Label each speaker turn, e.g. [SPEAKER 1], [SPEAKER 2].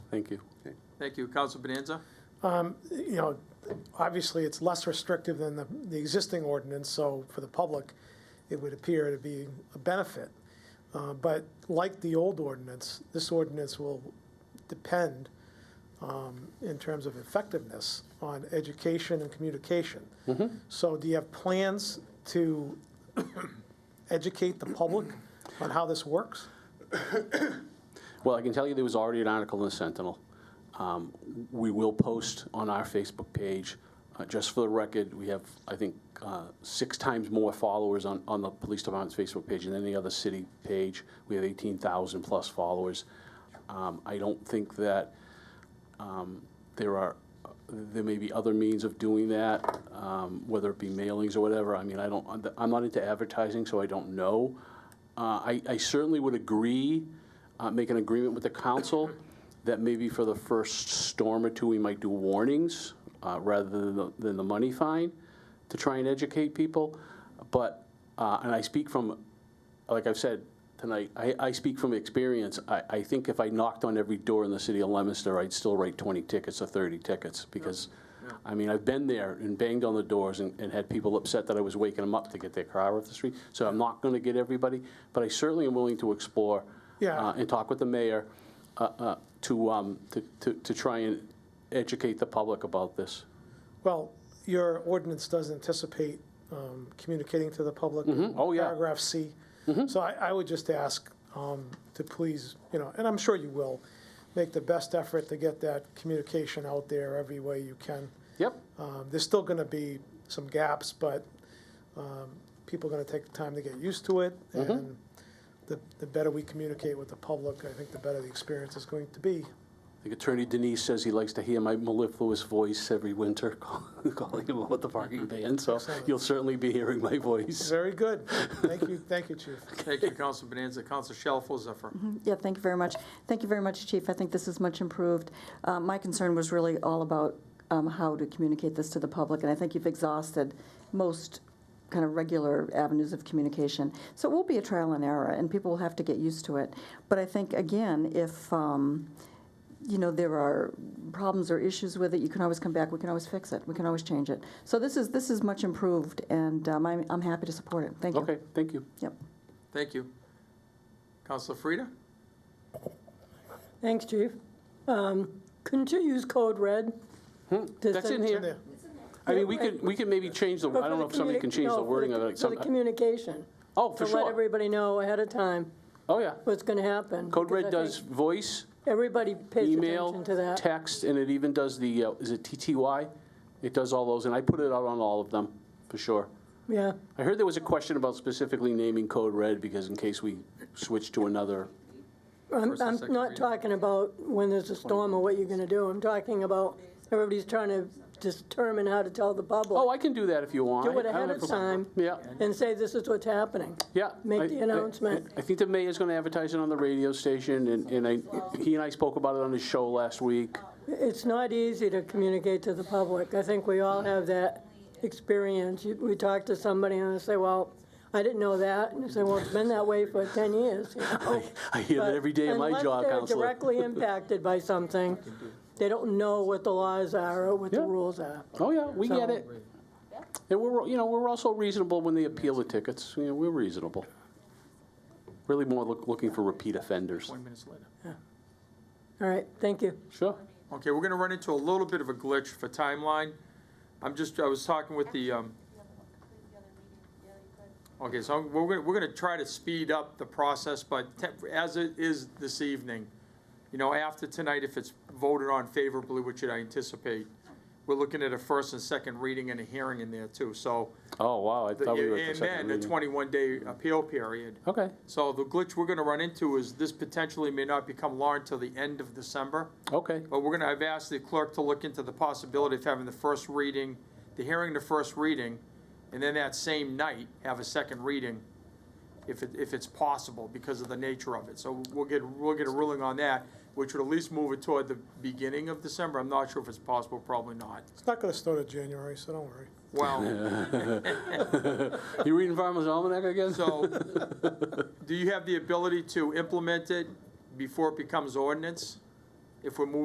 [SPEAKER 1] Thank you.
[SPEAKER 2] Thank you. Council Bonanza?
[SPEAKER 3] you know, obviously, it's less restrictive than the, the existing ordinance, so for the public, it would appear to be a benefit. Uh, But like the old ordinance, this ordinance will depend, um, in terms of effectiveness, on education and communication. So do you have plans to educate the public on how this works?
[SPEAKER 1] Well, I can tell you there was already an article in the Sentinel. Um, We will post on our Facebook page, uh, just for the record, we have, I think, uh, six times more followers on, on the police department's Facebook page than any other city page. We have 18,000-plus followers. Um, I don't think that um, there are, there may be other means of doing that, um, whether it be mailings or whatever. I mean, I don't, I'm not into advertising, so I don't know. Uh, I, I certainly would agree, uh, make an agreement with the council that maybe for the first storm or two, we might do warnings uh, rather than the, than the money fine to try and educate people. But, uh, and I speak from like I've said tonight, I, I speak from experience. I, I think if I knocked on every door in the city of Leominster, I'd still write 20 tickets or 30 tickets because, I mean, I've been there and banged on the doors and, and had people upset that I was waking them up to get their car off the street. So I'm not going to get everybody, but I certainly am willing to explore
[SPEAKER 3] Yeah.
[SPEAKER 1] uh, and talk with the mayor uh, uh, to, um, to, to, to try and educate the public about this.
[SPEAKER 3] Well, your ordinance does anticipate um, communicating to the public.
[SPEAKER 1] Oh, yeah.
[SPEAKER 3] Paragraph C. So I, I would just ask um, to please, you know, and I'm sure you will, make the best effort to get that communication out there every way you can.
[SPEAKER 1] Yep.
[SPEAKER 3] Um, There's still going to be some gaps, but um, people are going to take the time to get used to it. And the the better we communicate with the public, I think the better the experience is going to be.
[SPEAKER 1] I think Attorney Denise says he likes to hear my mellifluous voice every winter calling him about the parking ban, so you'll certainly be hearing my voice.
[SPEAKER 3] Very good. Thank you, thank you, Chief.
[SPEAKER 2] Thank you, Council Bonanza. Council Shalfo Zephyr?
[SPEAKER 4] Yeah, thank you very much. Thank you very much, Chief. I think this is much improved. Uh, My concern was really all about um, how to communicate this to the public, and I think you've exhausted most kind of regular avenues of communication. So it will be a trial and error, and people will have to get used to it. But I think, again, if, um, you know, there are problems or issues with it, you can always come back, we can always fix it, we can always change it. So this is, this is much improved, and um, I'm I'm happy to support it. Thank you.
[SPEAKER 1] Okay, thank you.
[SPEAKER 4] Yep.
[SPEAKER 2] Thank you. Council Frida?
[SPEAKER 5] Thanks, Chief. Um, Couldn't you use code red? to
[SPEAKER 1] Hmm, That's in
[SPEAKER 5] send-
[SPEAKER 1] here. I mean, we could, we could maybe change the,
[SPEAKER 5] But
[SPEAKER 1] I
[SPEAKER 5] for
[SPEAKER 1] don't know
[SPEAKER 5] the
[SPEAKER 1] if somebody
[SPEAKER 5] communi-
[SPEAKER 1] can change
[SPEAKER 5] no,
[SPEAKER 1] the
[SPEAKER 5] for
[SPEAKER 1] wording of it.
[SPEAKER 5] For
[SPEAKER 1] some-
[SPEAKER 5] the communication.
[SPEAKER 1] Oh, for
[SPEAKER 5] To let
[SPEAKER 1] sure.
[SPEAKER 5] everybody know ahead of time
[SPEAKER 1] Oh, yeah.
[SPEAKER 5] what's going to happen.
[SPEAKER 1] Code
[SPEAKER 5] because
[SPEAKER 1] Red
[SPEAKER 5] I
[SPEAKER 1] does
[SPEAKER 5] think
[SPEAKER 1] voice,
[SPEAKER 5] Everybody pays
[SPEAKER 1] email,
[SPEAKER 5] attention to that.
[SPEAKER 1] text, and it even does the, uh, is it TTY? It does all those, and I put it out on all of them, for sure.
[SPEAKER 5] Yeah,
[SPEAKER 1] I heard there was a question about specifically naming Code Red because in case we switch to another
[SPEAKER 5] I'm,
[SPEAKER 2] First and
[SPEAKER 5] I'm
[SPEAKER 2] second
[SPEAKER 5] not
[SPEAKER 2] reading.
[SPEAKER 5] talking about when there's a storm or what you're going to do. I'm talking about everybody's trying to determine how to tell the
[SPEAKER 1] Oh,
[SPEAKER 5] public
[SPEAKER 1] I can do that if you want.
[SPEAKER 5] Do it
[SPEAKER 1] I don't
[SPEAKER 5] ahead
[SPEAKER 1] have
[SPEAKER 5] of
[SPEAKER 1] a problem. Yeah,
[SPEAKER 5] and say, this is what's happening.
[SPEAKER 1] yeah.
[SPEAKER 5] Make
[SPEAKER 1] I-
[SPEAKER 5] the
[SPEAKER 1] I-
[SPEAKER 5] announcement.
[SPEAKER 1] I think the mayor's going to advertise it on the radio station, and and I, he and I spoke about it on his show last week.
[SPEAKER 5] It's not easy to communicate to the public. I think we all have that experience. You- We talk to somebody and they say, well, I didn't know that. And you say, well, it's been that way for 10 years. you know?
[SPEAKER 1] I hear that every day in my
[SPEAKER 5] Unless
[SPEAKER 1] job,
[SPEAKER 5] they're
[SPEAKER 1] counselor.
[SPEAKER 5] directly impacted by something, they don't know what the laws are or what the
[SPEAKER 1] Yeah.
[SPEAKER 5] rules are.
[SPEAKER 1] Oh, yeah, we get
[SPEAKER 5] So-
[SPEAKER 1] it. And we're, you know, we're also reasonable when they appeal the tickets. You know, we're reasonable. Really more look- looking for repeat offenders.
[SPEAKER 2] 20 minutes later.
[SPEAKER 5] All right, thank you.
[SPEAKER 1] Sure.
[SPEAKER 2] Okay, we're gonna run into a little bit of a glitch for timeline. I'm just, I was talking with the, um, okay, so I'm- we're gonna, we're gonna try to speed up the process, but te- as it is this evening, you know, after tonight, if it's voted on favorably, which I anticipate, we're looking at a first and second reading and a hearing in there too, so.
[SPEAKER 1] Oh, wow, I
[SPEAKER 2] the-
[SPEAKER 1] thought we were at
[SPEAKER 2] And
[SPEAKER 1] the
[SPEAKER 2] then
[SPEAKER 1] second
[SPEAKER 2] the
[SPEAKER 1] reading.
[SPEAKER 2] twenty-one day appeal period.
[SPEAKER 1] Okay,
[SPEAKER 2] So the glitch we're gonna run into is this potentially may not become law until the end of December.
[SPEAKER 1] okay,
[SPEAKER 2] But we're gonna, I've asked the clerk to look into the possibility of having the first reading, the hearing, the first reading, and then that same night, have a second reading, if it, if it's possible, because of the nature of it. So we'll get, we'll get a ruling on that, which would at least move it toward the beginning of December. I'm not sure if it's possible, probably not.
[SPEAKER 3] It's not going to start in January, so don't worry.
[SPEAKER 2] Well,
[SPEAKER 1] you reading Farmer's Almanac again?
[SPEAKER 2] so, do you have the ability to implement it before it becomes ordinance? If we're moving